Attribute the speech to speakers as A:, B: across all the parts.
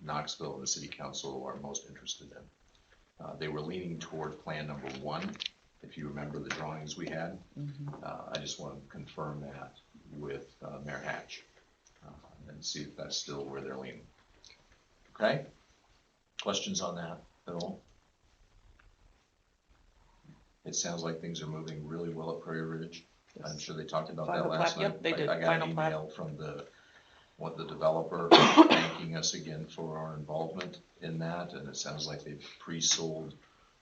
A: Knoxville and the city council are most interested in. Uh, They were leaning toward plan number one, if you remember the drawings we had.
B: Mm-hmm.
A: Uh, I just want to confirm that with uh, Mayor Hatch uh, and see if that's still where they're leaning. Okay? Questions on that at all? It sounds like things are moving really well at Prairie Ridge. I'm sure they talked about that
B: Final plat,
A: last night.
B: yep, they
A: I-
B: did,
A: I got an
B: final plat.
A: email from the, what, the developer thanking us again for our involvement in that, and it sounds like they've pre-sold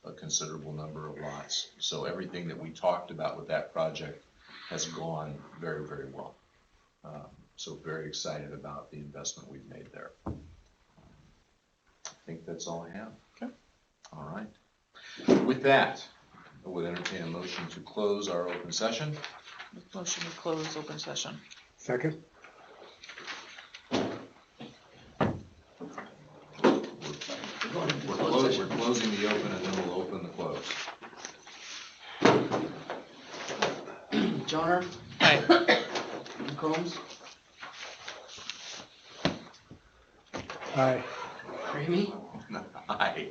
A: a considerable number of lots. So everything that we talked about with that project has gone very, very well. Um, So very excited about the investment we've made there. I think that's all I have.
B: Okay.
A: All right. With that, I would entertain a motion to close our open session.
B: Motion to close open session.
C: Second?
A: We're closing, we're closing the open and then we'll open the close.
D: Johnner,
B: Aye.
D: Combs,
C: Aye.
D: Ramey,
A: Aye.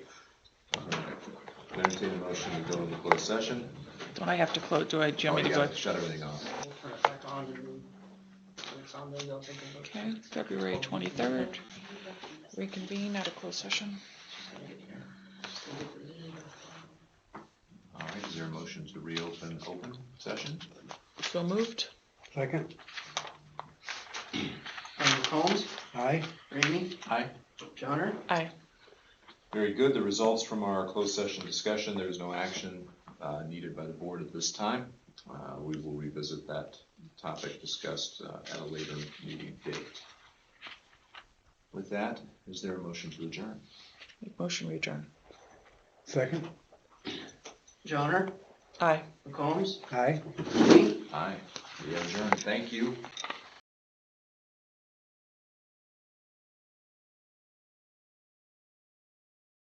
A: Entertain a motion to go into closed session.
B: Don't I have to close, do I, do you
A: Oh,
B: want me
A: you
B: to go?
A: gotta Shut everything off.
D: we'll turn it back on and then, when it's on, then they'll take a vote.
B: Okay, February twenty-third, reconvene out of closed session.
A: All right, is there a motion to reopen open session?
B: So moved.
C: Second?
D: Um, Combs,
C: Aye.
D: Ramey,
A: Aye.
D: Johnner,
B: Aye.
A: Very good. The results from our closed session discussion, there is no action uh, needed by the board at this time. Uh, We will revisit that topic discussed uh, at a later meeting date. With that, is there a motion to adjourn?
B: Make Motion we adjourn.
C: Second?
D: Johnner,
B: Aye.
D: Combs,
C: Aye.
D: Ramey,
A: Aye, we adjourn. Thank you.